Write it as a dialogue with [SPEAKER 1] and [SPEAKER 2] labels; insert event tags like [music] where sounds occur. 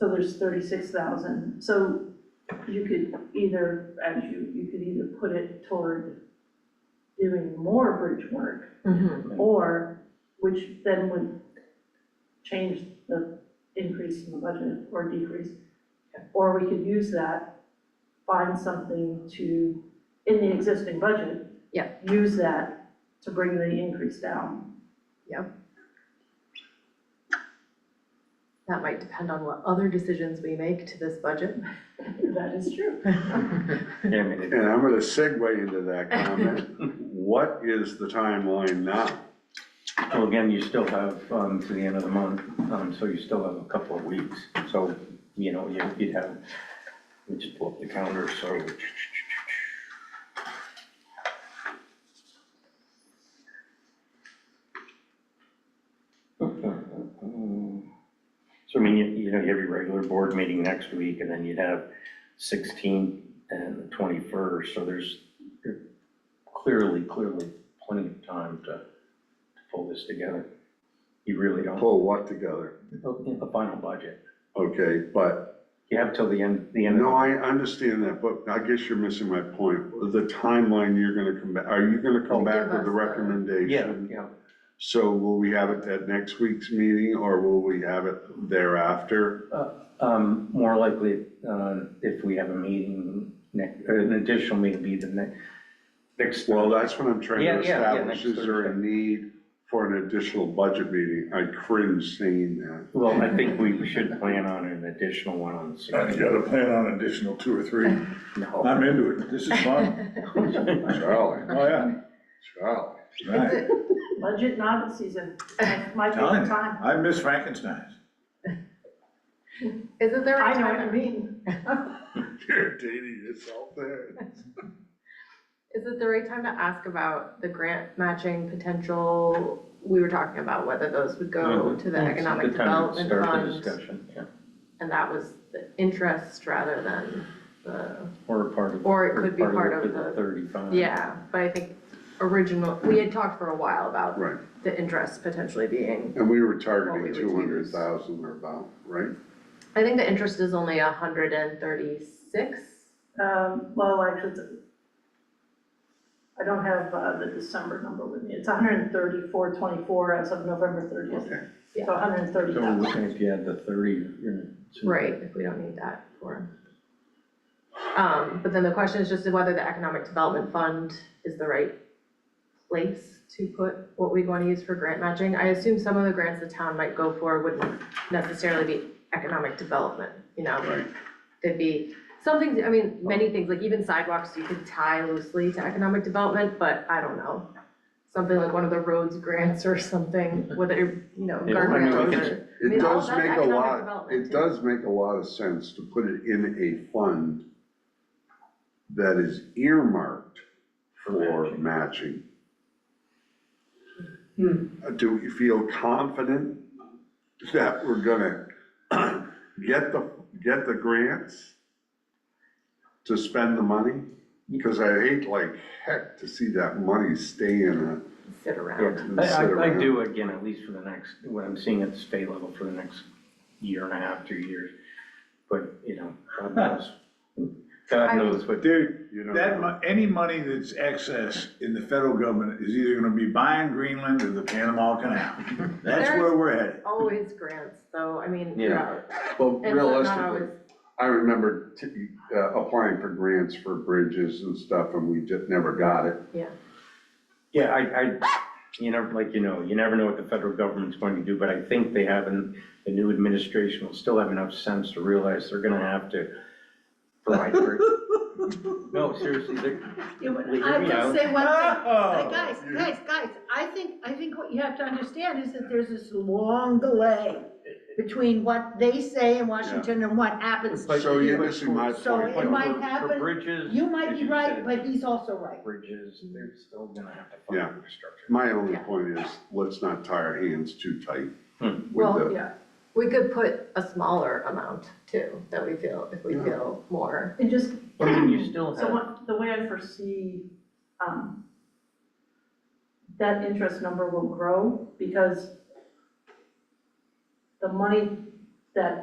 [SPEAKER 1] So there's thirty-six thousand, so you could either, as you, you could either put it toward doing more bridge work,
[SPEAKER 2] Mm-hmm.
[SPEAKER 1] or, which then would change the increase in the budget or decrease. Or we could use that, find something to, in the existing budget.
[SPEAKER 2] Yeah.
[SPEAKER 1] Use that to bring the increase down.
[SPEAKER 2] That might depend on what other decisions we make to this budget.
[SPEAKER 1] That is true.
[SPEAKER 3] Yeah, I mean, it-
[SPEAKER 4] And I'm gonna segue into that comment. What is the timeline now?
[SPEAKER 3] well, again, you still have, um, to the end of the month, um, so you still have a couple of weeks. So, you know, you- you'd have, let me just pull up the calendar, so. So I mean, you, you know, you have your regular board meeting next week, and then you'd have sixteenth and the twenty-first, so there's there- clearly, clearly plenty of time to, to pull this together. You really don't,
[SPEAKER 4] Pull what together?
[SPEAKER 3] the final budget,
[SPEAKER 4] Okay, but,
[SPEAKER 3] you have till the end, the end of.
[SPEAKER 4] no, I understand that, but I guess you're missing my point. The timeline you're gonna come back, are you gonna come back with the
[SPEAKER 3] Yeah,
[SPEAKER 4] recommendation?
[SPEAKER 3] yeah,
[SPEAKER 4] So will we have it at next week's meeting, or will we have it thereafter?
[SPEAKER 3] um, more likely, uh, if we have a meeting, next, or an additional meeting, be the next, next.
[SPEAKER 4] Well, that's what I'm trying
[SPEAKER 3] Yeah,
[SPEAKER 4] to
[SPEAKER 3] yeah, yeah,
[SPEAKER 4] establish,
[SPEAKER 3] next
[SPEAKER 4] is there a
[SPEAKER 3] Thursday.
[SPEAKER 4] need for an additional budget meeting? I cringe seeing that.
[SPEAKER 3] Well, I think we should plan on an additional one on the
[SPEAKER 5] Uh, You
[SPEAKER 3] sixteenth.
[SPEAKER 5] gotta plan on additional two or three. I'm into it. This is
[SPEAKER 3] Oh.
[SPEAKER 2] [laughs]
[SPEAKER 6] [laughs]
[SPEAKER 5] fun.
[SPEAKER 4] Charlie,
[SPEAKER 5] Oh, yeah.
[SPEAKER 4] Charlie. [laughs]
[SPEAKER 5] Right.
[SPEAKER 1] Budget novel season, that's my
[SPEAKER 5] Telling
[SPEAKER 1] favorite
[SPEAKER 5] you,
[SPEAKER 1] time.
[SPEAKER 5] I miss Frankenstein's.
[SPEAKER 2] Isn't there a
[SPEAKER 1] I know what you
[SPEAKER 2] time,
[SPEAKER 1] mean.
[SPEAKER 4] You're dating yourself there.
[SPEAKER 2] is it the right time to ask about the grant matching potential? We were talking about whether those would go to the economic development
[SPEAKER 3] Mm-hmm. Start the
[SPEAKER 2] fund,
[SPEAKER 3] discussion, yeah,
[SPEAKER 2] and that was the interest rather than the,
[SPEAKER 3] or a part of.
[SPEAKER 2] Or it could be part of the-
[SPEAKER 3] Thirty-five.
[SPEAKER 2] yeah, but I think original, we had talked for a while about
[SPEAKER 4] Right,
[SPEAKER 2] the interest potentially being,
[SPEAKER 4] and we were
[SPEAKER 2] What we
[SPEAKER 4] targeting
[SPEAKER 2] would
[SPEAKER 4] two hundred thousand or about, right?
[SPEAKER 2] I think the interest is only a hundred and thirty-six.
[SPEAKER 1] Um, well, actually, it's- I don't have uh, the December number with me. It's hundred and thirty-four twenty-four as of November thirtieth,
[SPEAKER 4] Okay,
[SPEAKER 1] so hundred and thirty
[SPEAKER 3] So we're
[SPEAKER 1] thousand.
[SPEAKER 3] looking, if you had the thirty, you're.
[SPEAKER 2] Right, if we don't need that for. Um, but then the question is just whether the Economic Development Fund is the right place to put what we'd wanna use for grant matching. I assume some of the grants the town might go for wouldn't necessarily be economic development, you know?
[SPEAKER 4] Right.
[SPEAKER 2] They'd be something, I mean,
[SPEAKER 3] Oh.
[SPEAKER 2] many things, like even sidewalks, you could tie loosely to economic development, but I don't know. Something like one of the roads grants or something,
[SPEAKER 3] [laughs]
[SPEAKER 2] whether, you know,
[SPEAKER 3] Yeah, I mean, we
[SPEAKER 2] guardrails
[SPEAKER 3] could-
[SPEAKER 2] or. I
[SPEAKER 4] It
[SPEAKER 2] mean, all
[SPEAKER 4] does
[SPEAKER 2] that's
[SPEAKER 4] make a
[SPEAKER 2] economic
[SPEAKER 4] lot,
[SPEAKER 2] development
[SPEAKER 4] it
[SPEAKER 2] too.
[SPEAKER 4] does make a lot of sense to put it in a fund that is earmarked
[SPEAKER 3] For
[SPEAKER 4] for matching. Uh, Do we feel confident that we're gonna [clears throat] get the, get the grants to spend the money? Because I hate like heck to see that money stay in a
[SPEAKER 2] sit around.
[SPEAKER 3] Yeah, I, I- I do, again, at least for the next, what I'm seeing at the state level for the next year and a half, two years. But, you know, [laughs] God knows, God
[SPEAKER 2] I-
[SPEAKER 3] knows what.
[SPEAKER 5] Dude,
[SPEAKER 4] You don't
[SPEAKER 5] that,
[SPEAKER 4] know.
[SPEAKER 5] mon- any money that's excess in the federal government is either gonna be buying Greenland or the Panama
[SPEAKER 6] [laughs]
[SPEAKER 5] Canal. That's where we're headed.
[SPEAKER 2] Always grants, though, I mean,
[SPEAKER 3] Yeah.
[SPEAKER 2] yeah,
[SPEAKER 4] Well,
[SPEAKER 2] and so not
[SPEAKER 4] realistically,
[SPEAKER 2] always,
[SPEAKER 4] I remember t- uh, applying for grants for bridges and stuff, and we just never got it.
[SPEAKER 2] yeah.
[SPEAKER 3] Yeah, I, I, you know, like, you know, you never know what the federal government's going to do, but I think they have, and the new administration will still have enough sense to realize they're gonna have to provide for. [laughs] No, seriously, they're, well, hear
[SPEAKER 6] I
[SPEAKER 3] me out.
[SPEAKER 6] will say one
[SPEAKER 5] Oh.
[SPEAKER 6] thing, But guys, guys, guys, I think, I think what you have to understand is that there's this long delay between what they say in Washington and what happens.
[SPEAKER 3] But-
[SPEAKER 4] So you're missing my
[SPEAKER 6] So
[SPEAKER 4] point.
[SPEAKER 6] it might
[SPEAKER 3] for- For
[SPEAKER 6] happen.
[SPEAKER 3] bridges.
[SPEAKER 6] You might
[SPEAKER 3] as
[SPEAKER 6] be
[SPEAKER 3] said,
[SPEAKER 6] right, but he's also right.
[SPEAKER 3] Bridges, they're still gonna have to fund
[SPEAKER 4] Yeah.
[SPEAKER 3] infrastructure.
[SPEAKER 4] My only
[SPEAKER 2] Yeah.
[SPEAKER 4] point is, let's not tie our hands too tight
[SPEAKER 3] Hmm.
[SPEAKER 4] with
[SPEAKER 2] Well,
[SPEAKER 4] the,
[SPEAKER 2] yeah, we could put a smaller amount too, that we feel, if we
[SPEAKER 4] Yeah.
[SPEAKER 2] feel more.
[SPEAKER 1] And just,
[SPEAKER 3] I mean, you still
[SPEAKER 1] so
[SPEAKER 3] have,
[SPEAKER 1] what, the way I foresee, um, that interest number will grow because the money that